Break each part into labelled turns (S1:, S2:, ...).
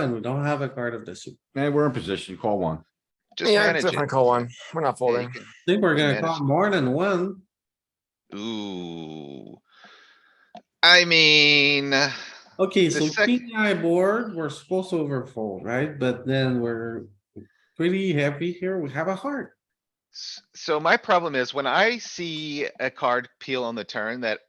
S1: And we don't have a card of the suit.
S2: Man, we're in position. Call one.
S3: Just
S4: Yeah,
S3: manage
S4: it's
S3: it.
S4: definitely call one. We're not
S3: Yeah, you
S4: folding.
S3: can-
S1: I Think we're gonna
S3: Manage.
S1: call more than one.
S3: Ooh. I mean,
S1: Okay,
S3: The
S1: so
S3: sec-
S1: king eye board, we're supposed to overfold, right? But then we're pretty happy here. We have a heart.
S3: s- so my problem is when I see a card peel on the turn that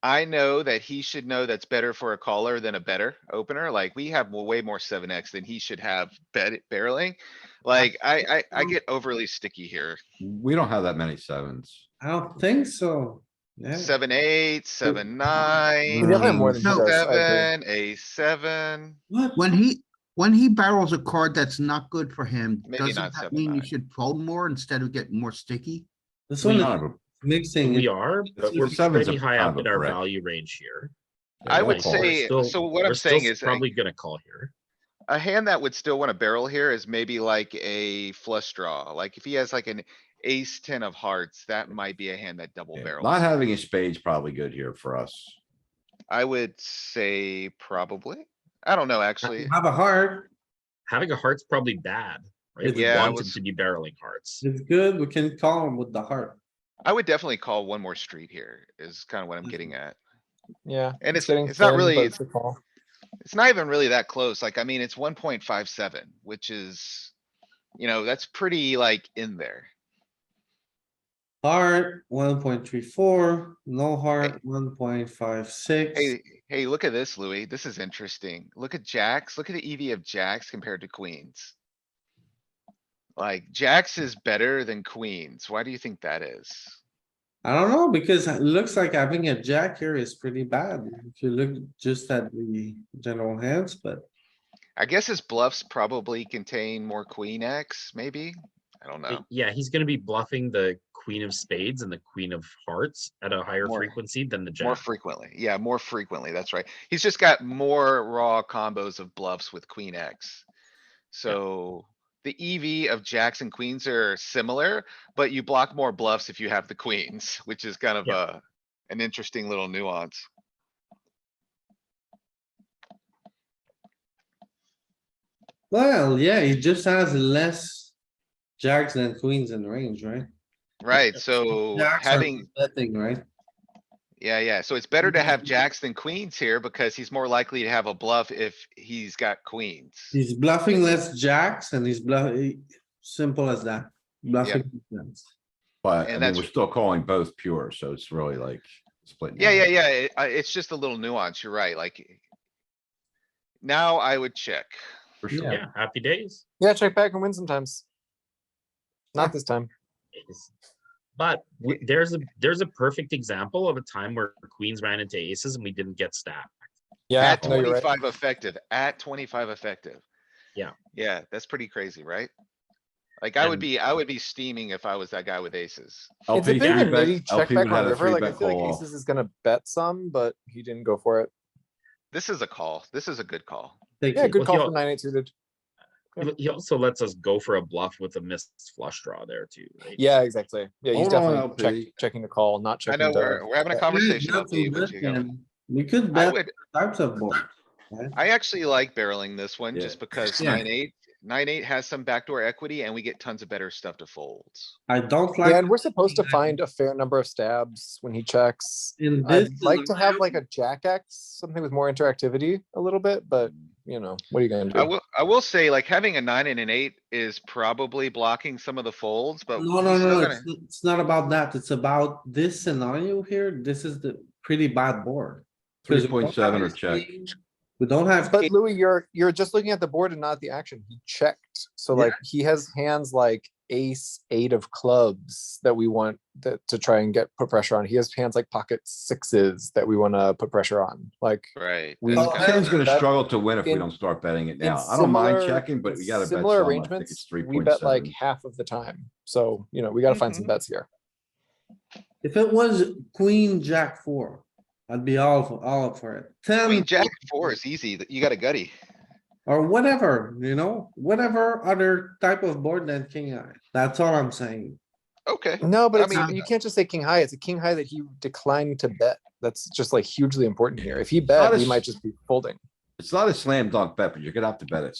S3: I know that he should know that's better for a caller than a better opener, like we have mo- way more seven X than he should have bet barreling. Like I, I, I get overly sticky here.
S2: We don't have that many sevens.
S1: I don't think so. Yeah,
S3: Seven, eight, seven, nine.
S4: We definitely have more
S5: Mm,
S4: than he does. I agree.
S3: Seven, a seven.
S1: what?
S5: When he, when he barrels a card that's not good for him,
S3: Maybe not
S5: doesn't that
S3: seven,
S5: mean you
S3: nine.
S5: should fold more instead of getting more sticky?
S1: This
S2: We
S1: one
S2: don't have
S1: is
S2: a-
S1: mixing.
S6: We
S1: it.
S6: are, but
S2: the
S6: we're
S2: seven's
S6: pretty
S2: a
S6: high up
S2: private
S6: in our
S2: brick.
S6: value range here.
S3: I
S2: we'll
S3: would
S2: call.
S3: say- so what I'm saying is, like-
S6: Probably gonna call here.
S3: A hand that would still wanna barrel here is maybe like a flush draw, like if he has like an ace ten of hearts, that might be a hand that double
S2: Yeah,
S3: barrels.
S2: Not having a spade's probably good here for us.
S3: I would say probably, I don't know, actually.
S1: Have a heart.
S6: Having a heart's probably bad, right?
S1: It's-
S6: We
S3: Yeah, I
S6: want him
S3: was-
S6: to be barreling hearts.
S1: It's good. We can call him with the heart.
S3: I would definitely call one more street here, is kinda what I'm getting at.
S4: Yeah.
S3: And it's-
S4: getting
S3: it's not
S4: thin,
S3: really-
S4: but It's a call.
S3: It's not even really that close, like, I mean, it's one point five seven, which is, you know, that's pretty like in there.
S1: Heart, one point three four, no heart, one point five six.
S3: Hey, hey, look at this, Louis, this is interesting, look at jacks, look at the EV of jacks compared to queens. Like, jacks is better than queens, why do you think that is?
S1: I don't know, because it looks like having a jack here is pretty bad. If you look just at the general hands, but
S3: I guess his bluffs probably contain more queen X, maybe? I don't know.
S6: Yeah, he's gonna be bluffing the queen of spades and the queen of hearts at a higher
S3: More-
S6: frequency than the
S3: More
S6: jack.
S3: frequently, yeah, more frequently, that's right. He's just got more raw combos of bluffs with queen X. So the EV of jacks and queens are similar, but you block more bluffs if you have the queens, which is kind of
S6: Yeah.
S3: a, an interesting little nuance.
S1: Well, yeah, he just has less jacks than queens in range, right?
S3: Right, so
S1: Jacks are
S3: having,
S1: Betting, right?
S3: yeah, yeah, so it's better to have jacks than queens here because he's more likely to have a bluff if he's got queens.
S1: He's bluffing less jacks and he's bluffing, simple as that. Bluffing. jacks.
S2: But I
S3: And
S2: mean,
S3: that's-
S2: we're still calling both pure, so it's really like splitting.
S3: Yeah, yeah,
S2: hairs.
S3: yeah. it- I- It's just a little nuance. You're right, like. Now I would check.
S2: For sure.
S6: Yeah, happy days.
S4: Yeah, check back and win sometimes. Not this time.
S6: Ace. But w- there's a, there's a perfect example of a time where queens ran into aces and we didn't get stacked.
S4: Yeah,
S3: At
S4: no, you're right.
S3: twenty-five effective, at twenty-five effective.
S6: Yeah.
S3: Yeah, that's pretty crazy, right? Like I would
S6: And-
S3: be, I would be steaming if I was that guy with aces.
S4: It's a
S2: LP
S4: big and
S2: three bet-
S4: meaty check
S2: LP
S4: back
S2: would
S4: on
S2: have a
S4: river.
S2: three
S4: Like, I
S2: bet
S4: feel like
S2: call.
S4: aces is gonna bet some, but he didn't go for it.
S3: This is a call. This is a good call.
S1: Take
S4: Yeah,
S1: it.
S4: good
S6: Well,
S4: call
S6: he
S4: for
S6: al-
S4: nine, eight suited.
S6: He- He also lets us go for a bluff with a missed flush draw there too. right?
S4: Yeah, exactly. Yeah, he's
S2: Hold on,
S4: definitely check,
S2: LP.
S4: checking the call, not
S3: I
S4: checking.
S3: know
S4: the-
S3: we're, we're having a
S4: yeah.
S3: conversation.
S1: Yeah,
S3: LP, but you know,
S1: nothing but- We could
S3: I
S1: bet
S3: would,
S1: types of board.
S3: I actually like barreling this one
S2: Yeah.
S3: just because
S2: Yeah.
S3: nine, eight, nine, eight has some backdoor equity and we get tons of better stuff to fold.
S1: I don't
S4: Yeah,
S1: like
S4: and we're supposed to
S1: Yeah.
S4: find a fair number of stabs when he checks.
S1: in this.
S4: I'd like to have like a jack X, something with more interactivity a little bit, but you know, what are you gonna
S3: I
S4: do?
S3: will, I will say like having a nine and an eight is probably blocking some of the folds, but.
S1: No,
S3: he's
S1: no,
S3: still
S1: no,
S3: gonna-
S1: it's, it's not about that. It's about this scenario here. This is the pretty bad board. 'Cause we don't have
S2: 3.7 or
S1: ace
S2: check.
S1: king, We don't have,
S4: But
S1: king.
S4: Louis, you're, you're just looking at the board and not the action. He checked. So
S1: Yeah.
S4: like, he has hands like ace, eight of clubs that we want that to try and get, put pressure on. He has hands like pocket sixes that we wanna put pressure on, like.
S3: Right.
S4: We-
S3: that's
S4: Oh,
S3: kinda
S4: I
S2: Ken's
S4: was
S3: the-
S2: gonna
S4: That-
S2: struggle to win if we
S4: in-
S2: don't start betting it
S4: in
S2: now. I don't mind
S4: similar-
S2: checking, but
S4: in
S2: we gotta bet some.
S4: Similar
S2: I think it's
S4: arrangements,
S2: three
S4: we
S2: point
S4: bet like
S2: seven.
S4: half of the time. So, you know, we gotta find some
S3: Mhm.
S4: bets here.
S1: if it was queen, jack four, I'd be all, for- all up for it.
S3: I
S1: Ten
S3: mean, jack four is easy. th- You got a gutty.
S1: or whatever, you know, whatever other type of board than king eye. That's all I'm saying.
S3: Okay.
S4: No, but
S3: I
S4: it's,
S3: mean-
S2: uh,
S4: you can't just say king high. It's a king high that he declined to bet. That's just like hugely important here. If he
S2: not
S4: bet, we
S2: as-
S4: might just be folding.
S2: It's not a slam dunk bet, but you're gonna have to bet it